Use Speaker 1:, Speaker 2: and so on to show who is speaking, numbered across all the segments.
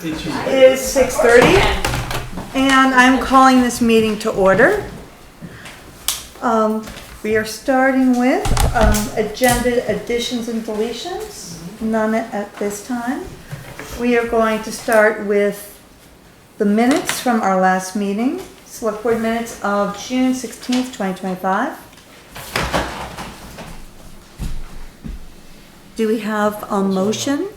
Speaker 1: Did you?
Speaker 2: is six thirty, and I'm calling this meeting to order. Um, we are starting with, um, agenda additions and deletions, none at this time. We are going to start with the minutes from our last meeting, select board minutes of June sixteenth, twenty twenty-five. Do we have a motion?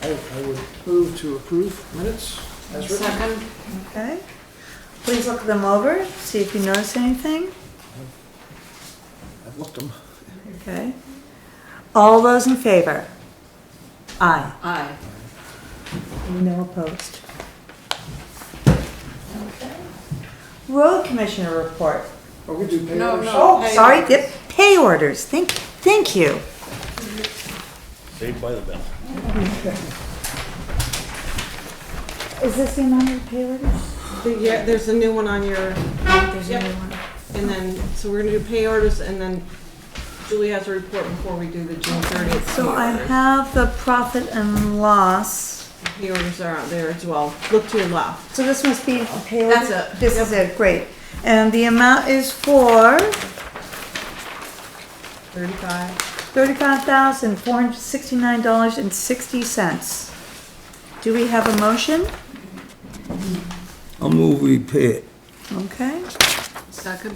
Speaker 3: I, I would move to approve minutes as written.
Speaker 4: Second,
Speaker 2: Okay, please look them over, see if you notice anything,
Speaker 3: I've looked them.
Speaker 2: okay? All those in favor? Aye.
Speaker 4: aye.
Speaker 2: No opposed. Road Commissioner report.
Speaker 3: Are we do pay
Speaker 4: No,
Speaker 3: orders?
Speaker 4: no.
Speaker 2: Oh,
Speaker 4: pay
Speaker 2: sorry,
Speaker 4: orders.
Speaker 2: yep, pay orders, thank, thank you.
Speaker 5: Saved by the bell.
Speaker 2: Is this the amount of pay orders?
Speaker 6: Yeah, there's a new one on your, there's a new one. And then, so we're gonna do pay orders and then Julie has a report before we do the June thirtieth.
Speaker 2: So I have the profit and loss,
Speaker 6: Pay orders are out there as well. Look to your left.
Speaker 2: so this must be pay orders?
Speaker 6: That's it.
Speaker 2: This is it, great. And the amount is for?
Speaker 6: Thirty-five.
Speaker 2: Thirty-five thousand, four hundred sixty-nine dollars and sixty cents. Do we have a motion?
Speaker 7: I'll move we pay it.
Speaker 2: Okay,
Speaker 4: Second,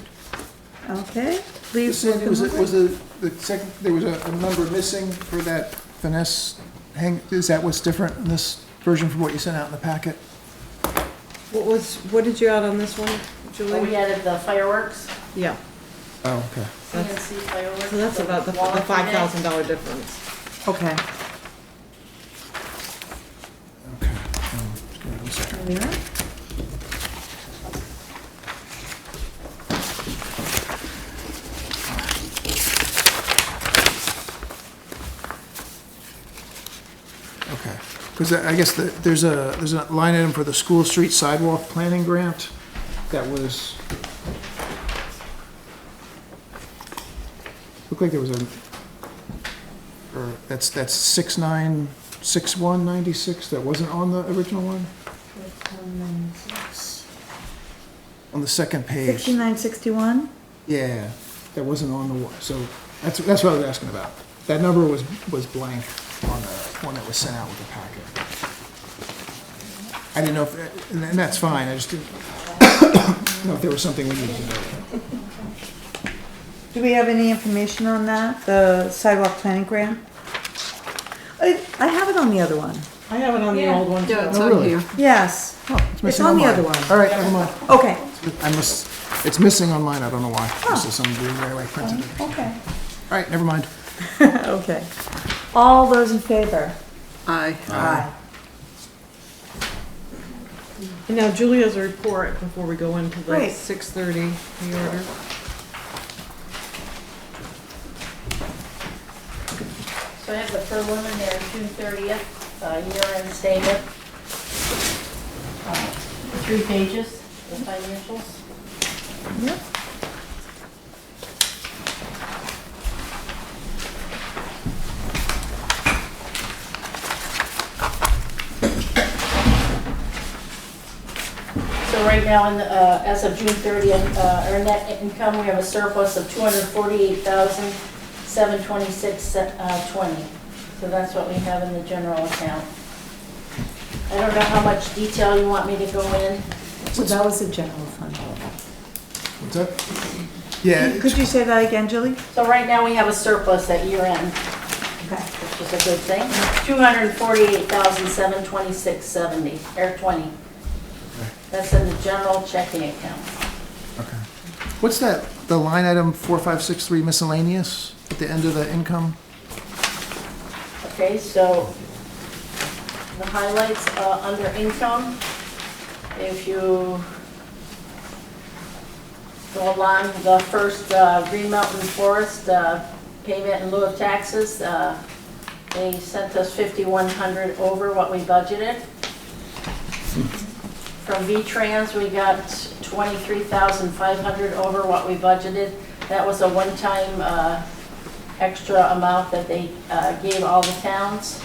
Speaker 2: okay,
Speaker 3: You
Speaker 2: please
Speaker 3: said
Speaker 2: look
Speaker 3: it was,
Speaker 2: them
Speaker 3: it
Speaker 2: over.
Speaker 3: was a, the second, there was a, a number missing for that finesse hang, is that what's different in this version from what you sent out in the packet?
Speaker 6: What was, what did you add on this one,
Speaker 2: Oh,
Speaker 8: We
Speaker 6: Julie?
Speaker 8: added the fireworks,
Speaker 6: Yeah,
Speaker 3: Oh, okay.
Speaker 6: That's-
Speaker 8: CNC fireworks.
Speaker 6: so that's about the,
Speaker 8: wall
Speaker 6: the
Speaker 8: unit.
Speaker 6: five thousand dollar difference.
Speaker 2: Okay.
Speaker 3: Um, Just give me one second.
Speaker 2: there we are.
Speaker 3: Okay, because I guess the- there's a, there's a line item for the school street sidewalk planning grant that was, looked like there was a, or that's, that's six nine, six one ninety-six, that wasn't on the original one? On the second page,
Speaker 2: Sixty-nine sixty-one,
Speaker 3: yeah, that wasn't on the, one. so that's, that's what I was asking about. That number was, was blank on the one that was sent out with the packet. I didn't know if, and and that's fine, I just didn't know if there was something we needed to know.
Speaker 2: do we have any information on that, the sidewalk planning grant? I, I have it on the other one,
Speaker 6: I have it on the old one.
Speaker 4: yeah, it's
Speaker 3: Oh,
Speaker 4: on
Speaker 3: really?
Speaker 4: here.
Speaker 2: yes, it's
Speaker 3: missing
Speaker 2: on the
Speaker 3: mine.
Speaker 2: other one,
Speaker 3: All right, never mind.
Speaker 2: okay,
Speaker 3: I must, it's missing on mine, I don't know why. This is some weird way I printed it. All
Speaker 2: okay,
Speaker 3: right, never mind.
Speaker 2: okay. All those in favor?
Speaker 4: Aye.
Speaker 2: Aye.
Speaker 6: And now Julie has a report before we go into the
Speaker 2: Great.
Speaker 6: six thirty pay order.
Speaker 8: So I have the preliminary June thirtieth, uh, year-end statement. Uh, Three pages, the financials.
Speaker 2: Yep.
Speaker 8: So right now, in the, uh, as of June thirtieth, uh, our net income, we have a surplus of two hundred forty-eight thousand, seven twenty-six, uh, twenty. So that's what we have in the general account. I don't know how much detail you want me to go in.
Speaker 2: So that was the general fund.
Speaker 3: What's that? Yeah, it's-
Speaker 2: Could you say that again, Julie?
Speaker 8: So right now, we have a surplus at year end,
Speaker 2: Okay.
Speaker 8: which is a good thing, two hundred forty-eight thousand, seven twenty-six, seventy, or twenty. That's in the general checking account.
Speaker 3: okay. What's that, the line item 4563 miscellaneous at the end of the income?
Speaker 8: Okay, so the highlights uh, under income, if you go along the first uh, Green Mountain Forest uh, payment in lieu of taxes, uh, they sent us 5,100 over what we budgeted. From V-Trans, we got 23,500 over what we budgeted. That was a one-time uh, extra amount that they uh, gave all the towns.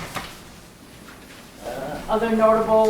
Speaker 8: Uh, Other notable